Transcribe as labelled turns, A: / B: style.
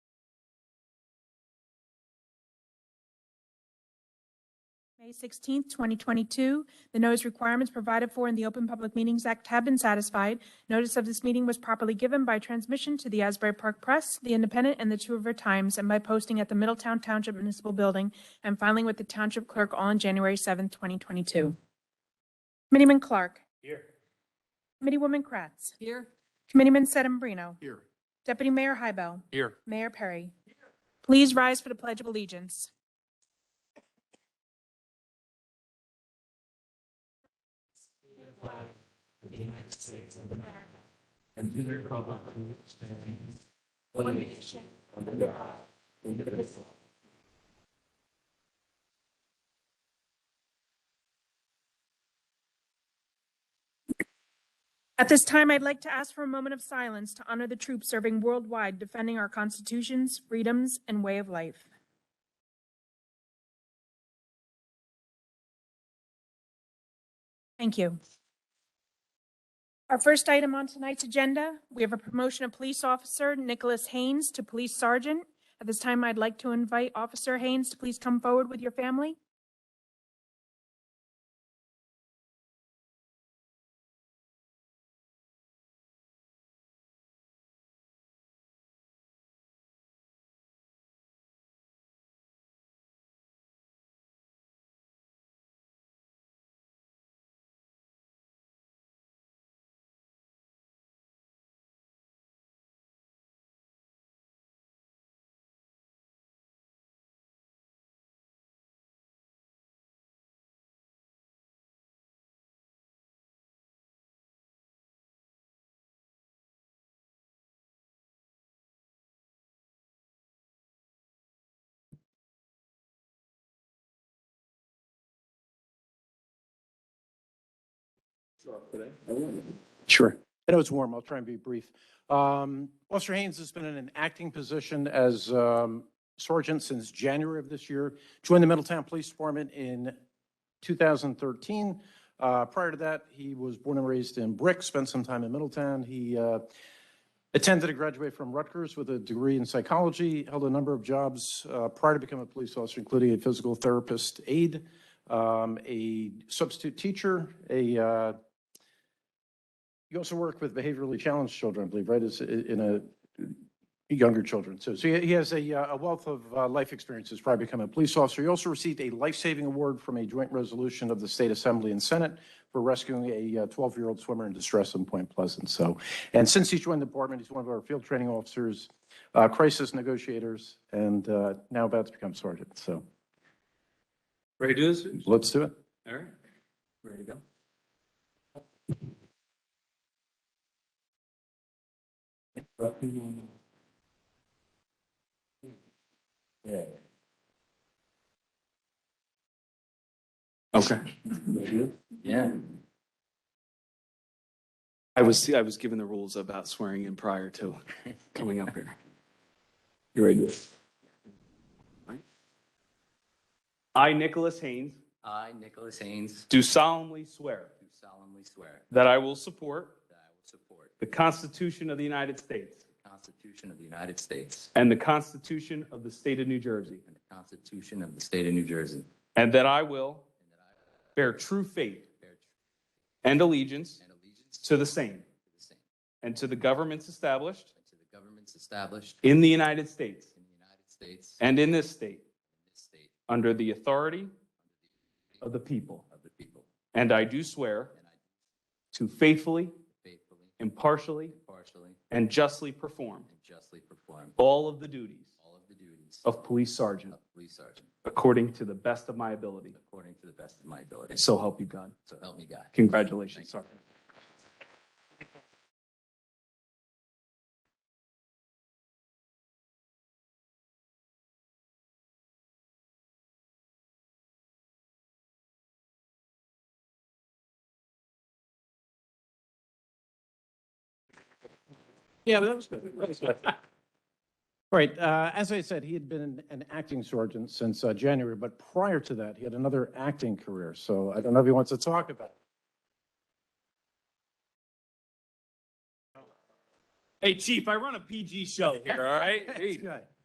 A: May 16th, 2022. The notice requirements provided for in the Open Public Meetings Act have been satisfied. Notice of this meeting was properly given by transmission to the Asbury Park Press, The Independent, and the Two River Times, and by posting at the Middletown Township Municipal Building and filing with the Township Clerk on January 7th, 2022. Committeeman Clark.
B: Here.
A: Committeewoman Kratz.
C: Here.
A: Committeeman Sedambrino.
B: Here.
A: Deputy Mayor Hybel.
B: Here.
A: Mayor Perry. Please rise for the Pledge of Allegiance. At this time, I'd like to ask for a moment of silence to honor the troops serving worldwide defending our constitutions, freedoms, and way of life. Thank you. Our first item on tonight's agenda, we have a promotion of Police Officer Nicholas Haynes to Police Sergeant. At this time, I'd like to invite Officer Haynes to please come forward with your family.
B: Sure. I know it's warm. I'll try and be brief. Um, Officer Haynes has been in an acting position as um, sergeant since January of this year. Joined the Middletown Police Department in 2013. Uh, Prior to that, he was born and raised in Brick, spent some time in Middletown. He uh, attended and graduated from Rutgers with a degree in psychology, held a number of jobs uh, prior to becoming a police officer, including a physical therapist aide, um, a substitute teacher, a uh, you also work with behaviorally challenged children, I believe, right? Is in a younger children. So, so he he has a, uh, a wealth of uh, life experiences prior to becoming a police officer. He also received a life-saving award from a joint resolution of the state assembly and senate for rescuing a uh, 12-year-old swimmer in distress in Point Pleasant. So, and since he's joined the department, he's one of our field training officers, uh, crisis negotiators, and uh, now about to become sergeant. So
D: Ready to do this?
B: let's do it.
D: All right. Ready to go? Okay. Yeah. I was, I was given the rules about swearing in prior to coming up here. You ready?
E: I, Nicholas Haynes,
F: I, Nicholas Haynes,
E: do solemnly swear
F: do solemnly swear
E: that I will support
F: that I will support
E: the Constitution of the United States
F: the Constitution of the United States
E: and the Constitution of the State of New Jersey,
F: and the Constitution of the State of New Jersey,
E: and that I will bear true faith
F: bear true
E: and allegiance
F: and allegiance to
E: to the same
F: the same,
E: and to the governments established
F: and to the governments established in
E: in the United States
F: the United States and
E: and in this state
F: this state
E: under the authority of the people.
F: of the people,
E: And I do swear
F: and I
E: to faithfully,
F: faithfully,
E: impartially,
F: impartially,
E: and justly perform
F: and justly perform
E: all of the duties
F: all of the duties of
E: of police sergeant
F: police sergeant
E: according to the best of my ability.
F: according to the best of my ability.
E: So help you God.
F: So help me God.
E: Congratulations, Sergeant.
B: Yeah, that was good. That was good. All right, uh, as I said, he had been an acting sergeant since uh, January, but prior to that, he had another acting career. So I don't know if he wants to talk about it.
E: Hey, Chief, I run a PG show here, all right?
B: Good.